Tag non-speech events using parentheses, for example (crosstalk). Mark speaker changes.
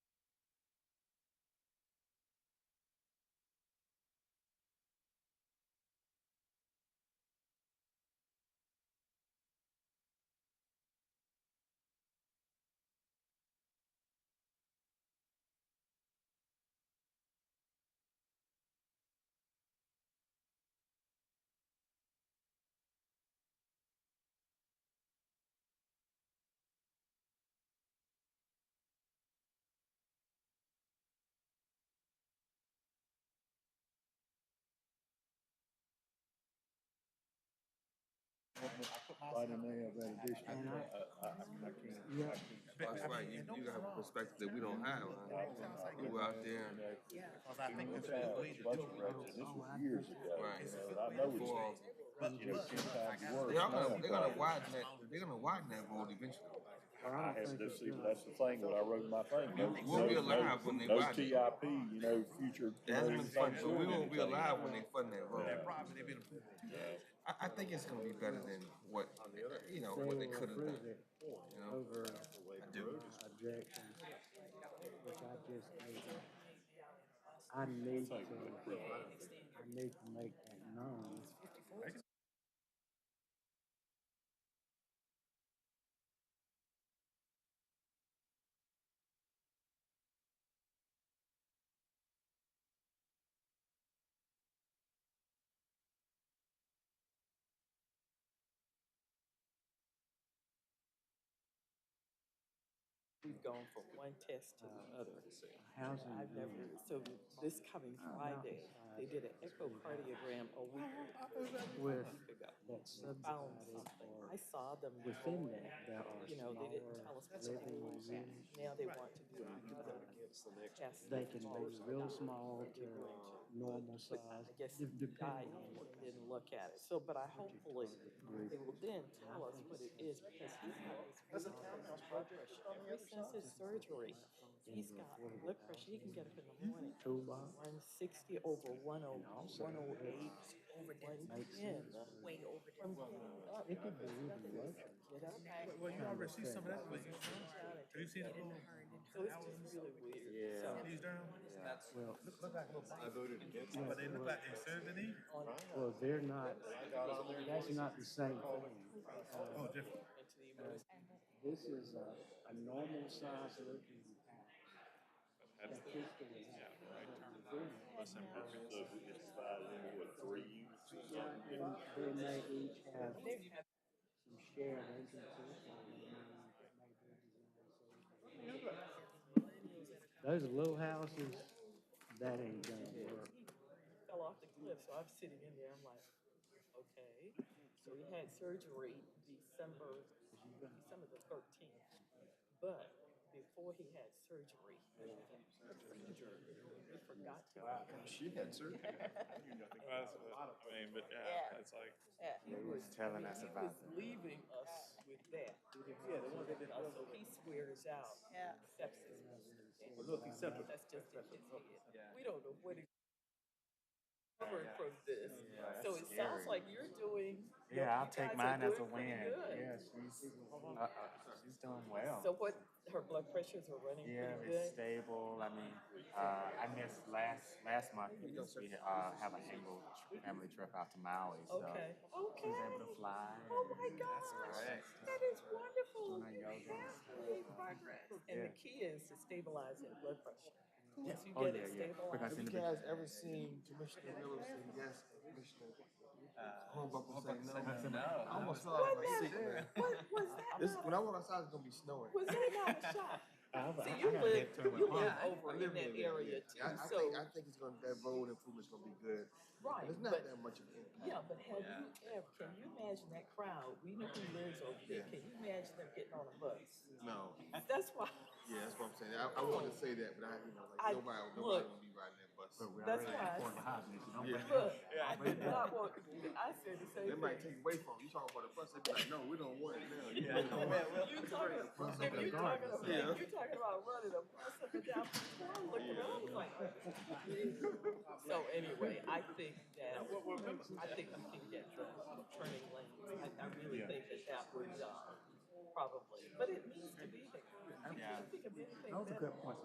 Speaker 1: Why didn't they have that additional?
Speaker 2: And I-
Speaker 1: Uh,
Speaker 2: Yeah.
Speaker 3: That's right, you, you have a perspective that we don't have. We were out there,
Speaker 4: Cause I think
Speaker 1: We've
Speaker 4: that's
Speaker 1: had
Speaker 4: the
Speaker 1: a
Speaker 4: way to
Speaker 1: bunch
Speaker 4: do
Speaker 1: of
Speaker 4: it.
Speaker 1: wrecks, and this was years ago.
Speaker 3: Oh, Right.
Speaker 1: And I know it's
Speaker 3: for,
Speaker 1: you know, ten times worse.
Speaker 3: they're gonna,
Speaker 1: now,
Speaker 3: they're gonna
Speaker 1: but-
Speaker 3: widen that, they're gonna widen that road eventually.
Speaker 2: Or
Speaker 1: I
Speaker 2: I don't
Speaker 1: have,
Speaker 2: think
Speaker 1: that's,
Speaker 2: it's done.
Speaker 1: that's the thing, when I wrote my thing. those-
Speaker 3: We'll be
Speaker 1: those-
Speaker 3: alive when they
Speaker 1: Those
Speaker 3: buy it.
Speaker 1: TIP, you know, future.
Speaker 3: That's been
Speaker 1: plans,
Speaker 3: fun, but we
Speaker 1: anything.
Speaker 3: won't be alive when they fund that road.
Speaker 4: That property they been approved.
Speaker 3: I, I think it's gonna be better than what, you know,
Speaker 2: They
Speaker 3: what they
Speaker 2: will
Speaker 3: could have
Speaker 2: approve
Speaker 3: done,
Speaker 2: it
Speaker 3: you know?
Speaker 2: over
Speaker 3: do.
Speaker 2: my objection, which I just need to, I need to, I need to make that known.
Speaker 5: We've gone from one test to another.
Speaker 2: Housing
Speaker 5: I've never,
Speaker 2: unit.
Speaker 5: so this coming Friday, they did an echocardiogram a week
Speaker 2: With
Speaker 5: ago.
Speaker 2: that
Speaker 5: Found
Speaker 2: subdivided
Speaker 5: something. I
Speaker 2: or
Speaker 5: saw them.
Speaker 2: within that, there are
Speaker 5: You know, they didn't tell
Speaker 2: smaller
Speaker 5: us what they
Speaker 2: living
Speaker 5: wanted.
Speaker 2: units.
Speaker 5: Now they want to do another test.
Speaker 2: They can be uh, real small to
Speaker 5: They're going to,
Speaker 2: normal
Speaker 5: but
Speaker 2: size,
Speaker 5: I guess
Speaker 2: de-
Speaker 5: I
Speaker 2: depending on what.
Speaker 5: didn't look at it. So, but I hopefully, they will then tell us what it is because he's got this crazy blood pressure. Ever since his surgery, he's got blood pressure. He can get up in the morning.
Speaker 2: Toolbox.
Speaker 5: One sixty over one oh, one oh eight, over one ten. Way over. From getting up,
Speaker 2: It could be even lower.
Speaker 5: get up.
Speaker 4: Well, well, you already see some of that, but you, have you seen it?
Speaker 5: So it's just really weird. So
Speaker 4: These down,
Speaker 2: Well,
Speaker 4: look, look like little bites, but they look like they served in these.
Speaker 2: well, they're not, that's not the same thing.
Speaker 4: Oh, different.
Speaker 5: into the emergency.
Speaker 2: This is a, a normal size looking house. That fits the way it's built. They may each have some shared entrances. or they may have maybe designed so- Those little houses, that ain't gonna work.
Speaker 5: fell off the cliff, so I'm sitting in there, I'm like, okay. So he had surgery December, December the thirteenth. But before he had surgery, he forgot to.
Speaker 6: She had surgery.
Speaker 7: That's what- I mean, but yeah, it's like,
Speaker 5: He was telling us about He was leaving us with that. Yeah, the one that did also, he swears out sepsis. Well, look, he's septic. That's just in his head. We don't know what he covered from this. So it sounds like you're doing.
Speaker 8: Yeah, I'll
Speaker 5: you
Speaker 8: take
Speaker 5: guys are
Speaker 8: mine as a
Speaker 5: doing pretty
Speaker 8: win.
Speaker 5: good.
Speaker 8: Yeah, she's, uh, uh, she's doing well.
Speaker 5: So what, her blood pressures are running
Speaker 8: Yeah,
Speaker 5: pretty
Speaker 8: it's
Speaker 5: good?
Speaker 8: stable. I mean, uh, I missed last last month because we uh, have an annual family trip out to Maui, so
Speaker 5: Okay,
Speaker 8: she was
Speaker 5: okay.
Speaker 8: able to fly.
Speaker 5: Oh my
Speaker 8: and-
Speaker 5: gosh,
Speaker 8: Right.
Speaker 5: that is wonderful.
Speaker 8: Doing
Speaker 5: You
Speaker 8: her yoga and
Speaker 5: have
Speaker 8: stuff.
Speaker 5: made progress. And the
Speaker 8: Yeah.
Speaker 5: key is to stabilize that blood pressure. Once you
Speaker 8: Oh
Speaker 5: get
Speaker 8: yeah,
Speaker 5: it
Speaker 8: yeah.
Speaker 5: stabilized.
Speaker 8: Because in
Speaker 3: Have
Speaker 8: the
Speaker 3: you guys ever seen Commissioner Willis and yes, Commissioner Hornbuckle say no? I almost fell out of my seat, man.
Speaker 5: What, was that
Speaker 3: This, when I
Speaker 5: not,
Speaker 3: went outside, it's gonna be snowing.
Speaker 5: was that not a shock?
Speaker 8: I've-
Speaker 5: See,
Speaker 8: (laughs) I
Speaker 5: you
Speaker 8: done
Speaker 5: live,
Speaker 8: been to it
Speaker 5: you
Speaker 8: with
Speaker 5: live
Speaker 8: mine.
Speaker 3: I
Speaker 5: over
Speaker 3: live
Speaker 5: in that
Speaker 3: there,
Speaker 5: area
Speaker 3: yeah. I,
Speaker 5: too,
Speaker 3: I
Speaker 5: so,
Speaker 3: think, I think it's gonna, that road improvement's gonna be good.
Speaker 5: right,
Speaker 3: It's not
Speaker 5: but,
Speaker 3: that much of an impact.
Speaker 5: yeah, but have you ever, can you imagine that crowd? We know who lives over there. Can you imagine them getting on a bus?
Speaker 3: No,
Speaker 5: That's why, (laughs)
Speaker 3: yeah, that's what I'm saying. I, I wanted to say that, but I, you know, like,
Speaker 5: I-
Speaker 3: nobody, nobody
Speaker 5: look.
Speaker 3: gonna be riding that bus.
Speaker 8: But we
Speaker 5: That's
Speaker 8: already
Speaker 5: why I
Speaker 8: had four
Speaker 5: s-
Speaker 8: behind me, so don't
Speaker 3: Yeah.
Speaker 8: bring it
Speaker 5: look,
Speaker 8: up.
Speaker 5: I did not want, I said the same
Speaker 3: They
Speaker 5: thing.
Speaker 3: might take away from you. You talking about the bus, they be like, no, we don't want it now. You (laughs)
Speaker 8: Yeah.
Speaker 3: don't want it.
Speaker 5: You talking, if you talking about, you talking about
Speaker 3: Yeah.
Speaker 5: running a bus up and down, I looked around, I was like. So anyway, I think that, I think we can get the turning lanes, I, I really think that that would, uh, probably, but it needs to be there. I
Speaker 8: Yeah.
Speaker 5: can't think of anything
Speaker 8: That was a
Speaker 5: better.
Speaker 8: good point.